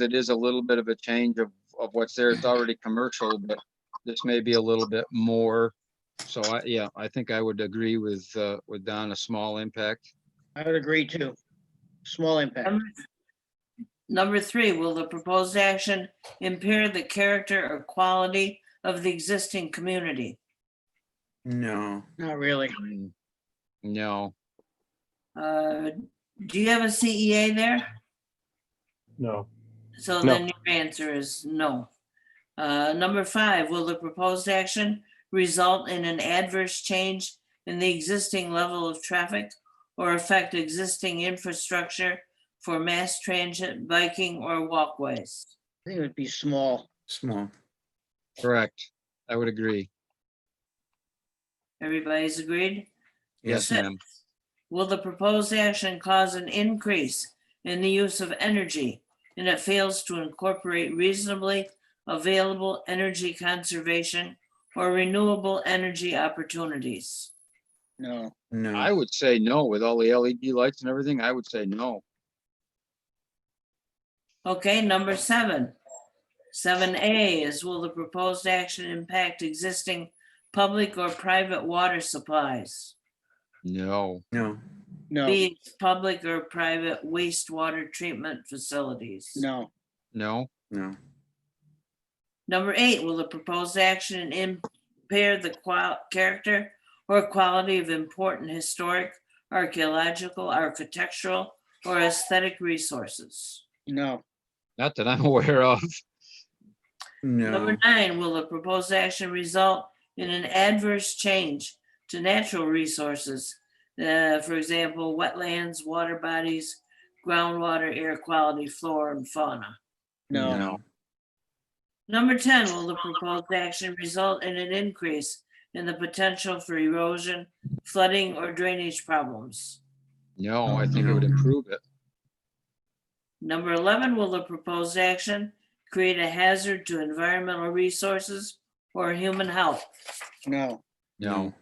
it is a little bit of a change of, of what's there. It's already commercial, but this may be a little bit more. So I, yeah, I think I would agree with, uh, with Don, a small impact. I would agree too. Small impact. Number- Number three, will the proposed action impair the character or quality of the existing community? No. Not really. Mm, No, Uh, Do you have a CEA there? No, So No. then your answer is no. Uh, Number five, will the proposed action result in an adverse change in the existing level of traffic or affect existing infrastructure for mass transit, biking, or walkways? I think it would be small. Small. correct. I would agree. Everybody's agreed? Yes, Six, ma'am. Will the proposed action cause an increase in the use of energy and it fails to incorporate reasonably available energy conservation or renewable energy opportunities? No. No. I would say no with all the LED lights and everything. I would say no. Okay, number seven. Seven A is will the proposed action impact existing public or private water supplies? No, no. No. B, public or private wastewater treatment facilities? No. no, No. Number eight, will the proposed action impair the qual- character or quality of important historic, archaeological, architectural, or aesthetic resources? No. not that I'm aware of. No. Number nine, will the proposed action result in an adverse change to natural resources? uh, for example, wetlands, water bodies, groundwater, air quality, flora and fauna. No. Number ten, will the proposed action result in an increase in the potential for erosion, flooding, or drainage problems? No, I think it would No. improve it. Number eleven, will the proposed action create a hazard to environmental resources or human health? No. No,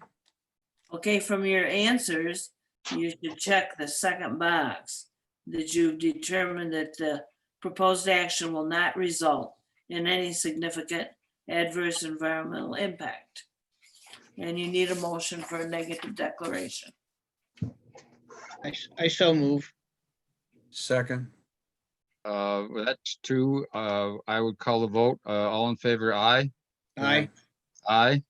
Okay, from your answers, you should check the second box that you've determined that the proposed action will not result in any significant adverse environmental impact. And you need a motion for a negative declaration. I, s- I so move. Second. uh, that's two. Uh, I would call the vote. Uh, all in favor, aye? Aye. Aye.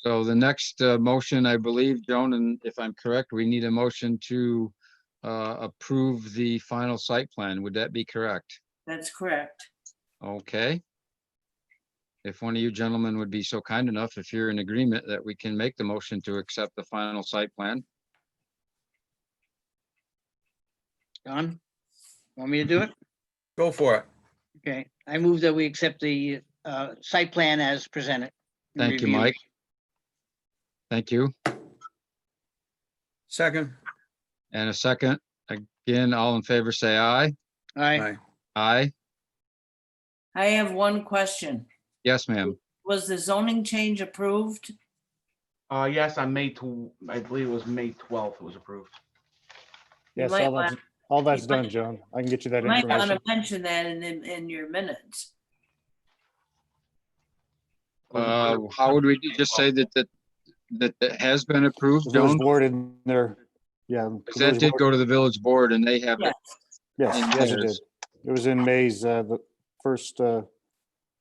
So the next uh, motion, I believe, Joan, and if I'm correct, we need a motion to uh, approve the final site plan. Would that be correct? That's correct. Okay. If one of you gentlemen would be so kind enough, if you're in agreement, that we can make the motion to accept the final site plan. Don? Want me to do it? Go for it. Okay. I move that we accept the uh, site plan as presented. and Thank you, reviewed. Mike. Thank you. Second. And a second, again, all in favor, say aye. Aye. Aye. Aye. I have one question. Yes, ma'am. Was the zoning change approved? Uh, yes, on May tw- I believe it was May twelfth it was approved. You yes, might all that's, all that's done, Joan. I can get you that Might want information. to mention that in, in in your minutes. It was Uh, approved. how would we do- just say that, that, that that has been approved, There was Joan? word in there. Yeah. 'Cause there that was did word- go to the village board and they have Yeah. it. Yes, in yes, it did. theirs. It was in May's, uh, the first, uh,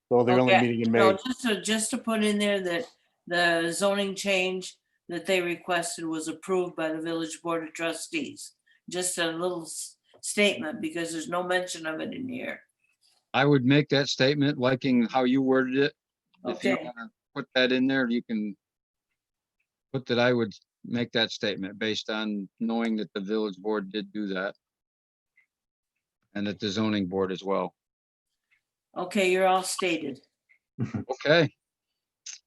well, the only Okay, meeting in Oh, No, May. just to, just to put in there that the zoning change that they requested was approved by the village board of trustees. Just a little s- statement because there's no mention of it in here. I would make that statement liking how you worded it. If you Okay. wanna Put that in there, you can put that I would make that statement based on knowing that the village board did do that. And that the zoning board as well. Okay, you're all stated. Okay.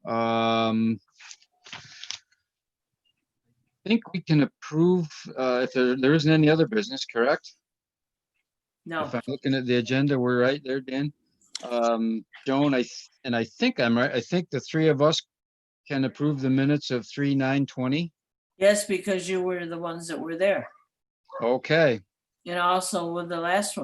Um. I think we can approve, uh, if there, there isn't any other business, correct? No, If I'm looking at the agenda, we're right there, Dan. Um, Joan, I, th- and I think I'm right, I think the three of us can approve the minutes of three, nine, twenty. yes, because you were the ones that were there. Okay, And also with the last one.